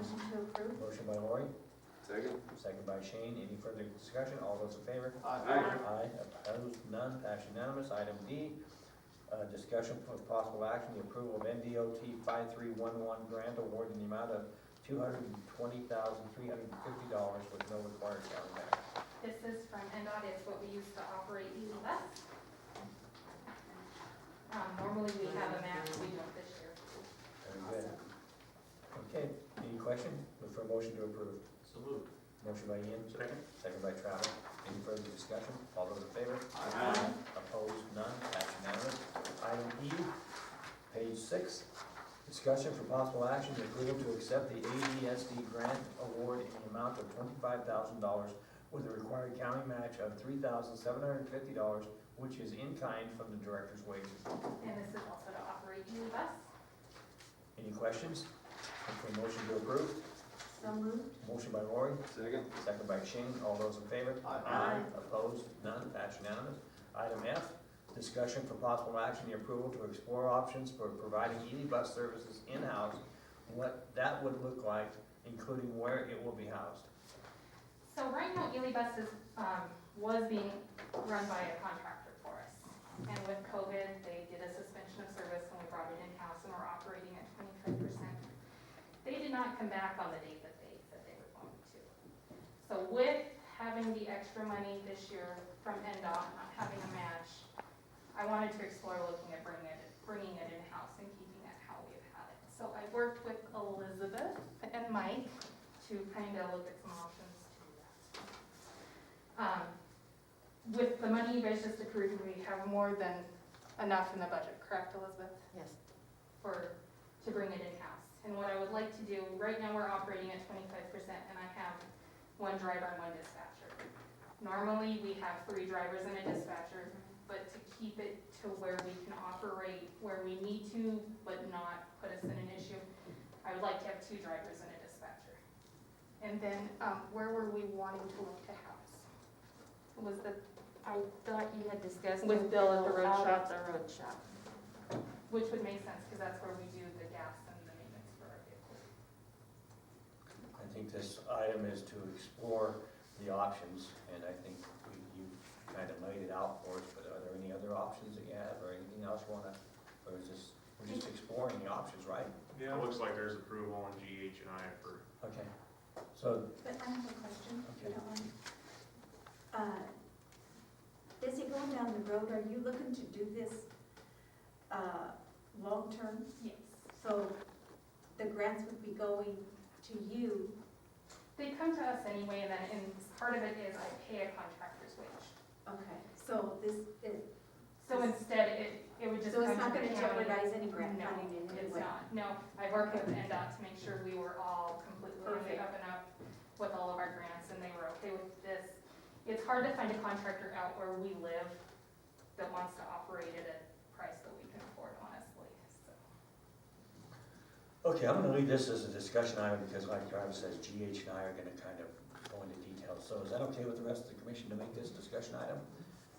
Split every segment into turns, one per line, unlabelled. approve.
Motion by Lori,
Second?
second by Shane. Any further discussion? All those in favor?
Aye.
Aye, opposed, none, passed unanimous. Item D, uh, discussion of possible action, the approval of NDOT five-three-one-one grant award in the amount of two hundred and twenty thousand, three hundred and fifty dollars with no required county match.
This is from NDOT, it's what we use to operate Easy Bus. Um, normally we have a match, we don't this year.
Very good. Okay, any question? Look for a motion to approve.
So moved.
Motion by Ian,
Second?
second by Travis. Any further discussion? All those in favor?
Aye.
Opposed, none, passed unanimous. Item E, page six, discussion for possible action, the approval to accept the ADSD grant award in the amount of twenty-five thousand dollars with a required county match of three thousand seven hundred and fifty dollars, which is in kind from the director's wages.
And this is also to operate Easy Bus.
Any questions? Look for a motion to approve.
So moved.
Motion by Lori,
Second?
second by Shane, all those in favor?
Aye.
Opposed? None? That's unanimous. Item F, discussion for possible action, the approval to explore options for providing ED bus services in-house, what that would look like, including where it will be housed.
So right now Easy Bus is, um, was being run by a contractor for us. And with COVID, they did a suspension of service and we brought it in-house and we're operating at twenty-five percent. They did not come back on the date that they said they were going to. So with having the extra money this year from NDOT, not having a match, I wanted to explore looking at bringing it, bringing it in-house and keeping it how we've had it. So I worked with Elizabeth and Mike to kind of look at some options to do that. Um, With the money you guys just approved, we have more than enough in the budget, correct, Elizabeth?
Yes.
for, to bring it in-house. And what I would like to do, right now we're operating at twenty-five percent and I have one driver and one dispatcher. Normally, we have three drivers and a dispatcher, but to keep it to where we can operate where we need to, but not put us in an issue, I would like to have two drivers and a dispatcher. And then, um, where were we wanting to look to house? Was the,
I thought you had discussed.
With Bill at the road
Out
shop.
at the road shop.
which would make sense, because that's where we do the gas and the maintenance for our vehicles.
I think this item is to explore the options, and I think we- you kind of laid it out for us, but are there any other options that you have, or anything else you wanna, or is this, we're just exploring the options, right?
Yeah, it looks like there's approval on GH and I for
Okay, so,
But I have a question, if you
Okay.
don't mind. Uh, Is it going down the road, are you looking to do this uh, long-term?
Yes.
So the grants would be going to you,
They come to us anyway, and then, and part of it is I pay a contractor's wage.
okay, so this, is-
So instead, it, it would just
so
come to the
it's not
county.
gonna jeopardize any grant
No,
funding in any
It's
way?
not, no, I worked with NDOT to make sure we were all completely on the
Perfect.
up and up with all of our grants, and they were okay with this. It's hard to find a contractor out where we live that wants to operate at a price that we can afford, honestly, so.
Okay, I'm gonna leave this as a discussion item because like Travis says, GH and I are gonna kind of go into detail. So is that okay with the rest of the commission to make this discussion item?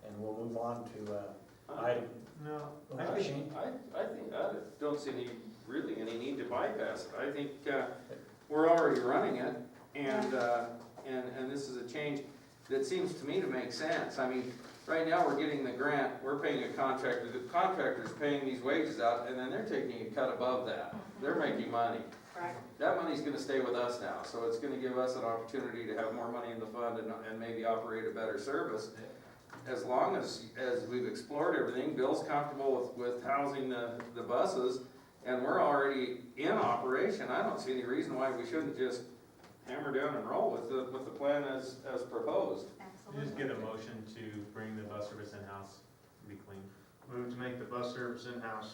And we'll move on to, uh, item,
No.
I
uh, Shane?
think, I, I think, I don't see any, really any need to bypass it. I think, uh, we're already running it, and, uh, and, and this is a change that seems to me to make sense. I mean, right now, we're getting the grant, we're paying a contractor, the contractor's paying these wages out, and then they're taking a cut above that. They're making money.
Right.
That money's gonna stay with us now, so it's gonna give us an opportunity to have more money in the fund and, and maybe operate a better service. As long as, as we've explored everything, Bill's comfortable with, with housing the, the buses, and we're already in operation, I don't see any reason why we shouldn't just hammer down and roll with the, with the plan as, as proposed.
Absolutely.
Just get a motion to bring the bus service in-house, and be clean.
Move to make the bus service in-house.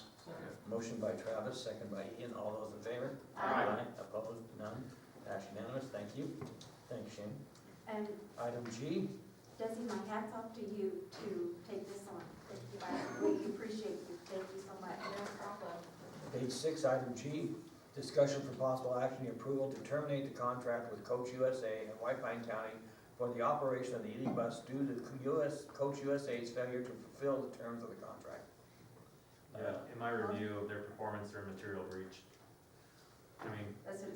Motion by Travis, second by Ian. All those in favor? Opposed? None? That's unanimous. Thank you. Thanks, Shane.
And
Item G,
Desi, my hat's off to you to take this on. Thank you, I really appreciate you, thank you so much.
No problem.
Page six, item G, discussion for possible action, the approval to terminate the contract with Coach USA and White Pine County for the operation of the ED bus due to US, Coach USA's failure to fulfill the terms of the contract.
Yeah, in my review of their performance, their material breach. I mean,
That's what it